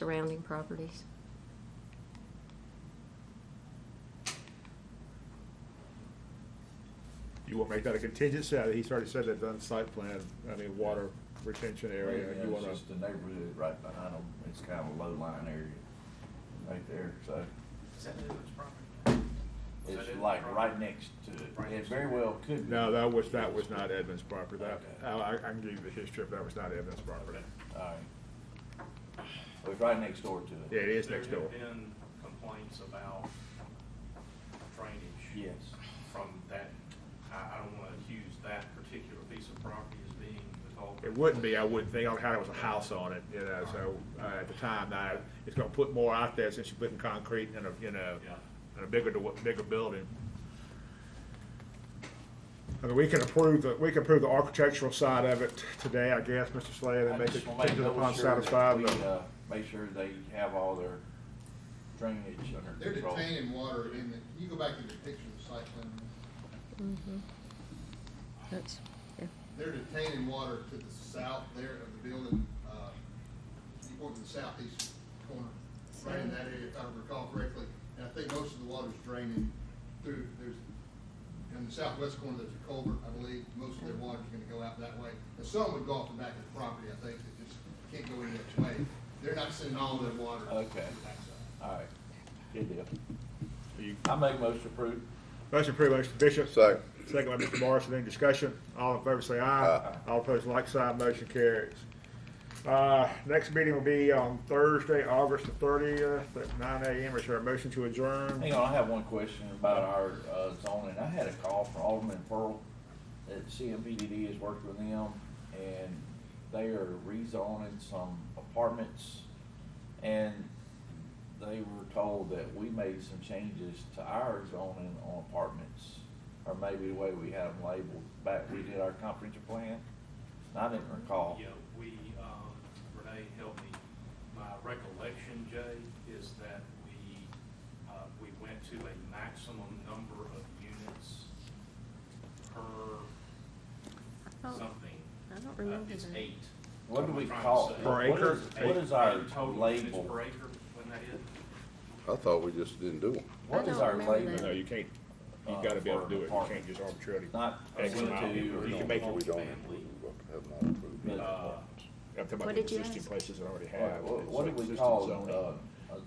surrounding properties. You want to make that a contingency, I mean, he's already said that on site plan, I mean, water retention area, Oh, Yeah, you It's wanna, just the neighborhood right behind them, it's kind of a low line area, right there, so. Is that Newland's property? Is that It's Newland's like property? right next to it, it very well could be. no, that was, that was not Edmund's property, that, Okay. I, I can give you the history, but that was not Edmund's property. Alright. It was right next door to it. Yeah, it is next door. There have been complaints about drainage Yes. from that, I, I don't want to accuse that particular piece of property as being the It culprit. wouldn't be, I wouldn't think, I had it was a house on it, you know, so, uh, at the time, I, it's gonna put more out there since you're putting concrete in a, in a, Yeah. in a bigger, dw- bigger building. I mean, we can approve, the we can approve the architectural side of it today, I guess, Mr. Slade, I and make just it wanna make contingent double upon sure that satisfying we, the. uh, Make sure they have all their drainage under They're control. detaining water in the, can you go back to the picture of the site plan? That's, yeah. They're detaining water to the south there of the building, uh, you go to the southeast corner, right in that area, if I recall correctly. And I think most of the water's draining through, there's, in the southwest corner, there's a culvert, I believe, most of their water's gonna go out that way. And some would go off the back of the property, I think, that just can't go any other way. They're not sending all their water. to Okay. the backside. Alright, good deal. You- I make most approved. Motion approved by Mr. Bishop. Second. Second by Mr. Morrison. Any discussion? All in favor say aye. All opposed, like sign. Motion carries. Uh, next meeting will be on Thursday, August the thirtieth at nine AM. Is there a motion to adjourn? Hang on, I have one question about our uh, zoning. I had a call from Alderman Pearl that CMPDD has worked with them and they are rezoning some apartments. And they were told that we made some changes to our zoning on apartments, or maybe the way we had them labeled back, we did our comprehensive plan. And I didn't recall. Yeah, we, um, Renee, help me. My recollection, Jay, is that we, uh, we went to a maximum number of units per don't- something. Oh, I don't Uh, remember It's that. eight. What do I'm we trying to call say. it? Per What acre? is- What is our Eight total units label? Per acre, wasn't that it? I thought we just didn't do them. What I is don't our remember label? that. No, you can't. You've gotta be able to do it. You can't just arbitrarily. Not X one, amount. two, or You can make it- We don't approve, Family. have not approved. But, it. Uh, I'm talking about What the did you existing ask? places that already What, what- what do we call, it, uh?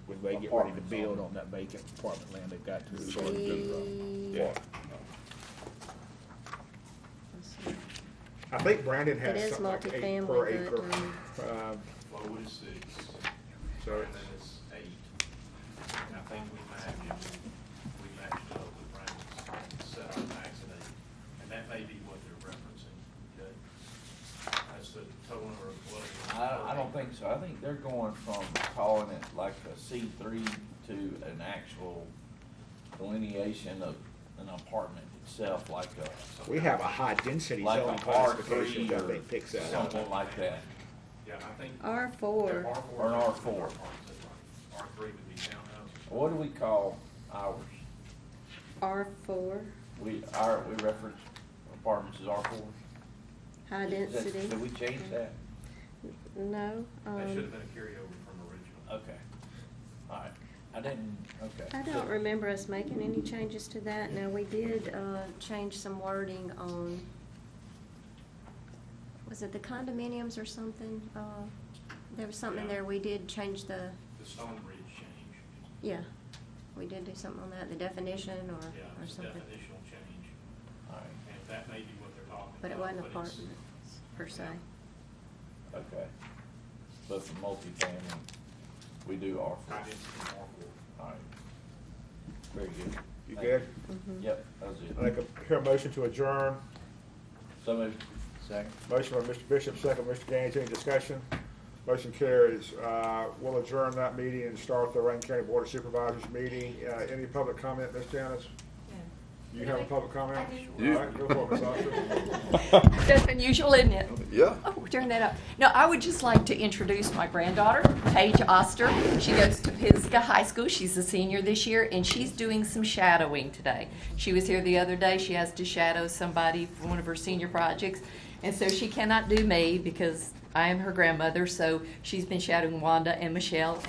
when they get ready to apartments build on- on that vacant apartment land they've got to. It's already been done. Tree- Yeah. I think Brandon It has is something like eight per multifamily, acre. but, um, Um, Low is six, So and it's- then it's eight. And I think we matched, we matched up with Brandon's, set our max at eight. And that may be what they're referencing, okay? That's the total number of dwellings. I, I don't think so. I think they're going from calling it like a C three to an actual delineation of an apartment itself, like a, We have a high density like zoning a R three classification or that they picks that up. something like that. Yeah, I think. R four, Or an R4. R three would be townhouses. What do we call ours? R four, We, our, we reference apartments as R four? high density. Did we change that? No, That should um, have been a carryover from original. Okay. All right. I didn't, okay. I don't remember us making any changes to that. Now, we did, uh, change some wording on, was it the condominiums or something? Uh, there was something Yeah. there, we did change the, The Stone Ridge change, yeah, we did do something on that, the definition or, yeah, or it's a something. definitional change. All right. And that may be what they're talking about. But it wasn't it's- apartments per se. Okay. But for multifamily, we do R four. High density R four. All right. Very good. You Thank good? Yep, that was I it. think, I hear a motion to adjourn. So moved. Second. Motion by Mr. Bishop, second by Mr. Gaines, any discussion? Motion carries. Uh, We'll adjourn that meeting and start the Rankin County Board of Supervisors meeting. Uh, Any public comment, Ms. Janice? You have a public comment? I do. All right, go for it, Ms. Oster. That's unusual, isn't it? Yeah. Oh, turn that up. No, I would just like to introduce my granddaughter, Paige Oster. She goes to Pisgah High School. She's a senior this year, and she's doing some shadowing today. She was here the other day. She has to shadow somebody for one of her senior projects, and so she cannot do me because I am her grandmother. So she's been shadowing Wanda and Michelle